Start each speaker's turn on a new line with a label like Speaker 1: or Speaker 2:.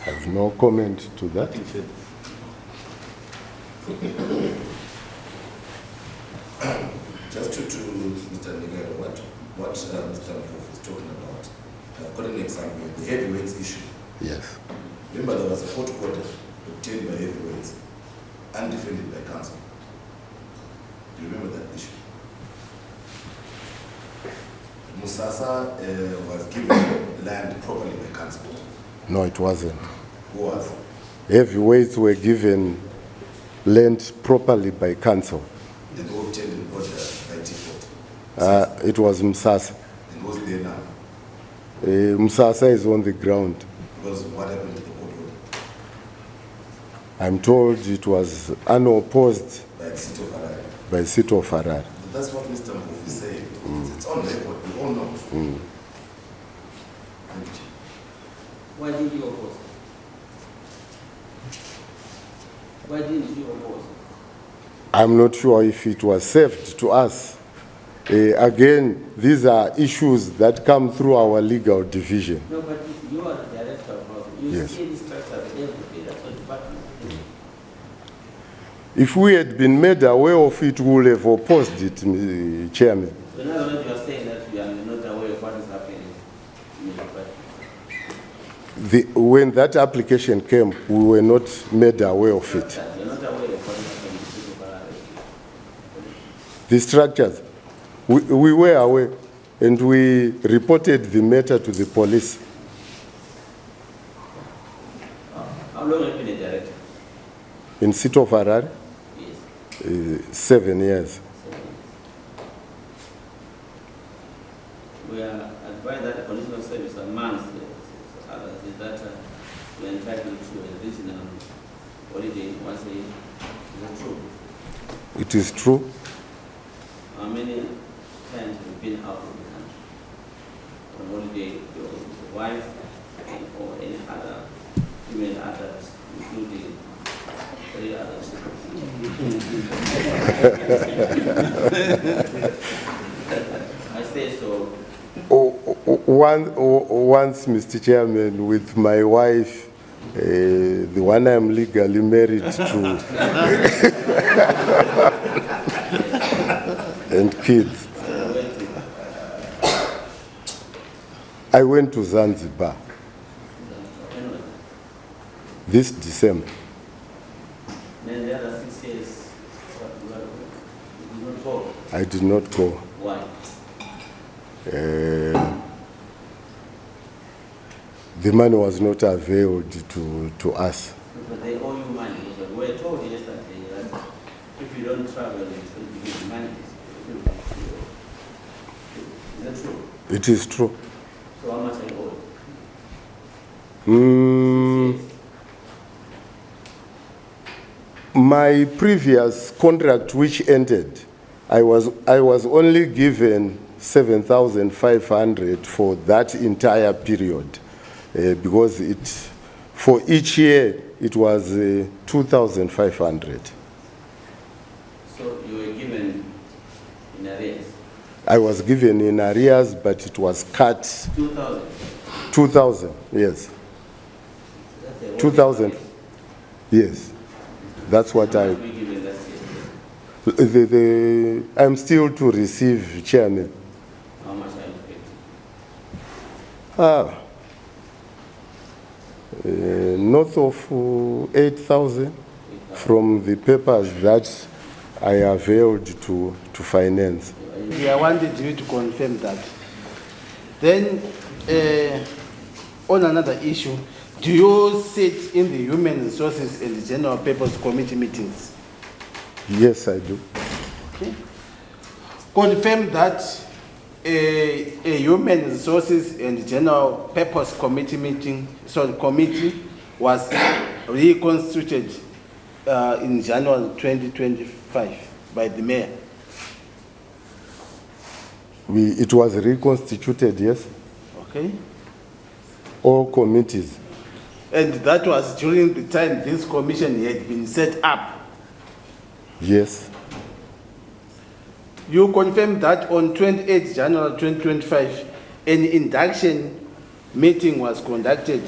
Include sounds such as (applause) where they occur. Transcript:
Speaker 1: I have no comment to that.
Speaker 2: Nothing further.
Speaker 3: Just to, to Mr. Nigel, what, what uh, Mr. Mpofu is talking about, I've got an example, the heavyweights issue.
Speaker 1: Yes.
Speaker 3: Remember there was a court order obtained by heavyweights, undefended by council. Do you remember that issue? Musasa uh, was given land properly by council.
Speaker 1: No, it wasn't.
Speaker 3: Who was?
Speaker 1: Heavyweights were given land properly by council.
Speaker 3: And who obtained an order by default?
Speaker 1: Uh, it was Msasa.
Speaker 3: And who's there now?
Speaker 1: Uh, Msasa is on the ground.
Speaker 3: Because what happened to the court order
Speaker 1: I'm told it was unopposed
Speaker 3: by the city of Harare?
Speaker 1: by Sito of Harare.
Speaker 3: That's what Mr. Mpofu is saying. It's on record, we all know. Thank you.
Speaker 4: Why did you oppose? Why didn't you oppose?
Speaker 1: I'm not sure if it was saved to us. Uh, again, these are issues that come through our legal division.
Speaker 4: No, but you- you are the director of housing. You
Speaker 1: Yes.
Speaker 4: see the structure of everything, that's what department.
Speaker 1: If we had been made aware of it, we would have opposed it, uh, Chairman.
Speaker 4: So now that you are saying that you are not aware of what is happening in the department.
Speaker 1: The, when that application came, we were not made aware of it.
Speaker 4: You're not aware of what is happening in the city of Harare.
Speaker 1: The structures, we, we were aware and we reported the matter to the police.
Speaker 4: How long have you been a director?
Speaker 1: In Sito Farare,
Speaker 4: Yes.
Speaker 1: uh, seven years.
Speaker 4: We are advised that conditional service amongst the others is that uh, we are entitled to a regional holiday once a year. Is that true?
Speaker 1: It is true.
Speaker 4: How many times have you been out of the country? On holiday, your wife and or any other female adults, including three others. I say so.
Speaker 1: O- o- one- o- Once, Mr. Chairman, with my wife, uh, the one I'm legally married to, (laughs) and kids,
Speaker 4: I went to
Speaker 1: I went to Zanzibar
Speaker 4: Anyway,
Speaker 1: this December.
Speaker 4: then the other six years, what, what, you did not vote.
Speaker 1: I did not go.
Speaker 4: Why?
Speaker 1: Uh, the money was not availed to, to us.
Speaker 4: Because they owe you money. We were told yesterday that if you don't travel, you should give money. Is that true?
Speaker 1: It is true.
Speaker 4: So how much I owe? you?
Speaker 1: Mm,
Speaker 4: Yes.
Speaker 1: my previous contract, which ended, I was, I was only given 7,500 for that entire period uh, because it, for each year it was uh, 2,500.
Speaker 4: So you were given in arrears,
Speaker 1: I was given in arrears, but it was cut
Speaker 4: two thousand.
Speaker 1: 2,000, yes.
Speaker 4: That's the old
Speaker 1: 2,000.
Speaker 4: arrears.
Speaker 1: Yes, that's what
Speaker 4: How
Speaker 1: I.
Speaker 4: much were you given last year?
Speaker 1: The, the, I'm still to receive, Chairman.
Speaker 4: How much are you paid?
Speaker 1: Ah, uh, north of uh, 8,000 from the papers that I availed to, to finance.
Speaker 5: Yeah, I wanted you to confirm that. Then, uh, on another issue, do you sit in the Human Resources and General Purpose Committee meetings?
Speaker 1: Yes, I do.
Speaker 5: Confirm that uh, a Human Resources and General Purpose Committee meeting, sorry, committee was reconstituted uh, in January 2025 by the mayor.
Speaker 1: We, it was reconstituted, yes?
Speaker 5: Okay?
Speaker 1: All committees.
Speaker 5: And that was during the time this commission had been set up.
Speaker 1: Yes,
Speaker 5: You confirmed that on 28 January 2025, an induction meeting was conducted